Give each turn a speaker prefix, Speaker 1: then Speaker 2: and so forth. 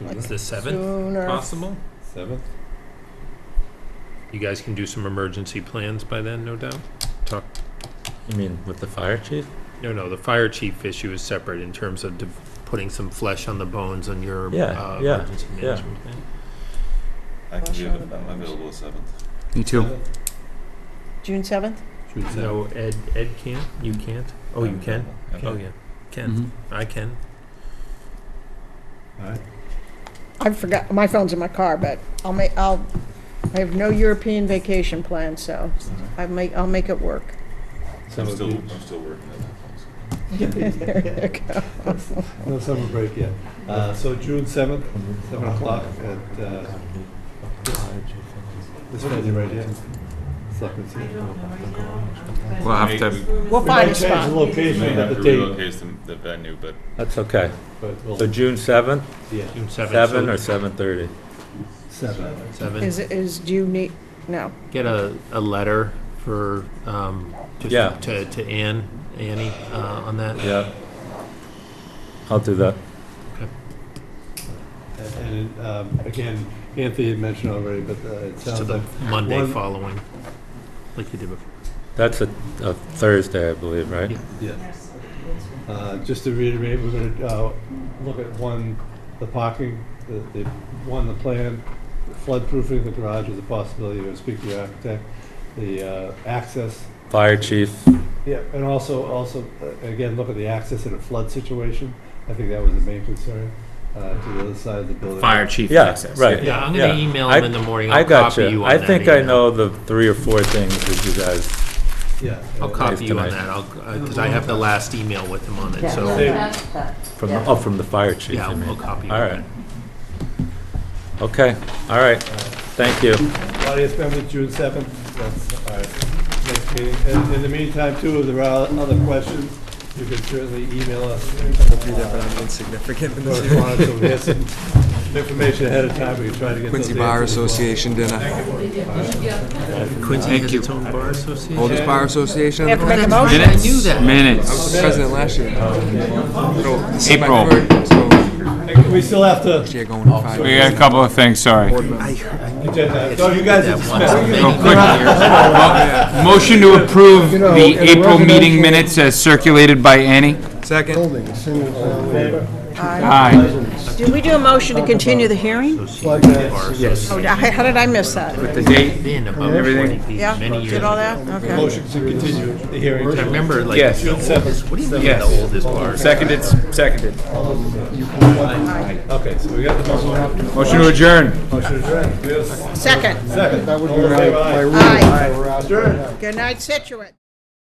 Speaker 1: Like
Speaker 2: Is the seventh
Speaker 1: sooner.
Speaker 2: possible?
Speaker 3: Seventh?
Speaker 2: You guys can do some emergency plans by then, no doubt? Talk,
Speaker 3: You mean with the fire chief?
Speaker 2: no, no, the fire chief issue is separate in terms of de- putting some flesh on the bones on your,
Speaker 3: Yeah,
Speaker 2: uh,
Speaker 3: yeah,
Speaker 2: emergency
Speaker 3: yeah.
Speaker 2: management plan.
Speaker 4: I can do
Speaker 1: Rush hour
Speaker 4: it. I'm
Speaker 1: hours.
Speaker 4: available the seventh.
Speaker 5: Me too.
Speaker 1: June seventh?
Speaker 4: June seventh.
Speaker 2: No, Ed, Ed can't, you can't? Oh, you can? Oh, yeah,
Speaker 6: Mm-hmm.
Speaker 2: Mm-hmm. can,
Speaker 5: Mhm.
Speaker 3: Mm-hmm.
Speaker 2: I can.
Speaker 1: I forgot, my phone's in my car, but I'll make, I'll, I have no European vacation planned, so I make, I'll make it work.
Speaker 4: I'm
Speaker 2: Some of
Speaker 4: still,
Speaker 2: you,
Speaker 4: I'm still working on that.
Speaker 1: There you go.
Speaker 7: No summer break yet. Uh, So June 7th, 7 o'clock at uh, this venue right here. Selectmen's
Speaker 5: We'll have
Speaker 4: Maybe
Speaker 5: to,
Speaker 1: We'll find a
Speaker 7: We might change the
Speaker 1: spot.
Speaker 4: We may
Speaker 7: location,
Speaker 4: have
Speaker 7: but
Speaker 4: to
Speaker 7: the date,
Speaker 4: relocate the, the venue, but
Speaker 3: That's okay.
Speaker 7: but we'll,
Speaker 3: So June seventh,
Speaker 7: yeah,
Speaker 2: June seventh,
Speaker 3: seven or
Speaker 2: so
Speaker 3: seven thirty?
Speaker 7: 7.
Speaker 2: seven,
Speaker 1: Is, is, do you need, no.
Speaker 2: get a, a letter for, um,
Speaker 3: Yeah.
Speaker 2: just to, to Ann, Annie, uh, on that.
Speaker 3: Yeah. I'll do that.
Speaker 7: And um, again, Anthony had mentioned already, but uh, it
Speaker 2: To
Speaker 7: sounds
Speaker 2: the
Speaker 7: like,
Speaker 2: Monday
Speaker 7: one-
Speaker 2: following, like you did before.
Speaker 3: That's a, a Thursday, I believe, right?
Speaker 2: Yeah.
Speaker 7: yeah. Uh, Just to reiterate, we're going to look at one, the parking, the, the- one, the plan, floodproofing the garage is a possibility, I was speaking to the architect, the uh, access,
Speaker 3: Fire chief,
Speaker 7: Yeah, and also, also, uh, again, look at the access in a flood situation. I think that was the main concern, uh, to the other side of the building.
Speaker 5: fire chief
Speaker 3: Yeah,
Speaker 5: access.
Speaker 3: right.
Speaker 2: Yeah, I'm gonna
Speaker 3: Yeah.
Speaker 2: email
Speaker 3: I-
Speaker 2: him in the morning.
Speaker 3: I
Speaker 2: I'll
Speaker 3: got
Speaker 2: copy
Speaker 3: you.
Speaker 2: you on
Speaker 3: I
Speaker 2: that
Speaker 3: think I
Speaker 2: email.
Speaker 3: know the three or four things that you guys,
Speaker 7: Yeah.
Speaker 2: I'll
Speaker 7: uh,
Speaker 2: copy you on
Speaker 3: tonight.
Speaker 2: that, I'll, because I have the last email with him on it, so,
Speaker 7: Same.
Speaker 3: from, the- oh, from the fire chief,
Speaker 2: yeah, I'll
Speaker 3: I
Speaker 2: I'll
Speaker 3: mean.
Speaker 2: copy you
Speaker 3: All
Speaker 2: on
Speaker 3: right.
Speaker 2: that.
Speaker 3: Okay, all right. Thank you.
Speaker 7: Audience members, June seventh, that's our next meeting. And in the meantime, too, if there are other questions, you can certainly email us. uh,
Speaker 5: insignificant
Speaker 7: Correspondence, so we have some information ahead of time, we can try to get those
Speaker 5: Quincy Bar
Speaker 7: answers as well.
Speaker 5: Association dinner.
Speaker 2: Quincy has its own bar association?
Speaker 5: Oldest Bar Association.
Speaker 1: We have to make a motion.
Speaker 2: I knew that.
Speaker 5: I was president last year.
Speaker 6: April.
Speaker 7: And We still have to,
Speaker 5: You're going in five
Speaker 6: We got a
Speaker 5: years.
Speaker 6: couple of things, sorry.
Speaker 7: agenda, so you guys are dismissed.
Speaker 6: Real quick. Mo- Motion to approve
Speaker 3: Oh,
Speaker 6: the April meeting minutes as circulated by Annie.
Speaker 5: Second.
Speaker 6: Aye.
Speaker 1: Did we do a motion to continue the hearing?
Speaker 2: Yes.
Speaker 1: Oh, d- how did I miss that?
Speaker 6: The date,
Speaker 2: Been about
Speaker 6: Everything.
Speaker 2: 40,
Speaker 1: Yeah,
Speaker 2: many years
Speaker 1: did all
Speaker 2: ago.
Speaker 1: that? Okay.
Speaker 7: Motion to continue the hearing.
Speaker 2: I remember like,
Speaker 6: Yes.
Speaker 2: the oldest- what do you mean the
Speaker 6: Yes.
Speaker 2: oldest bar?
Speaker 6: seconded, seconded.
Speaker 7: Okay, so we got the motion.
Speaker 6: Motion to adjourn.
Speaker 7: Motion adjourned. We have a
Speaker 1: Second.
Speaker 7: Second. All in favor, aye.
Speaker 1: Aye.
Speaker 7: Adjourned.
Speaker 1: Good night, Situate.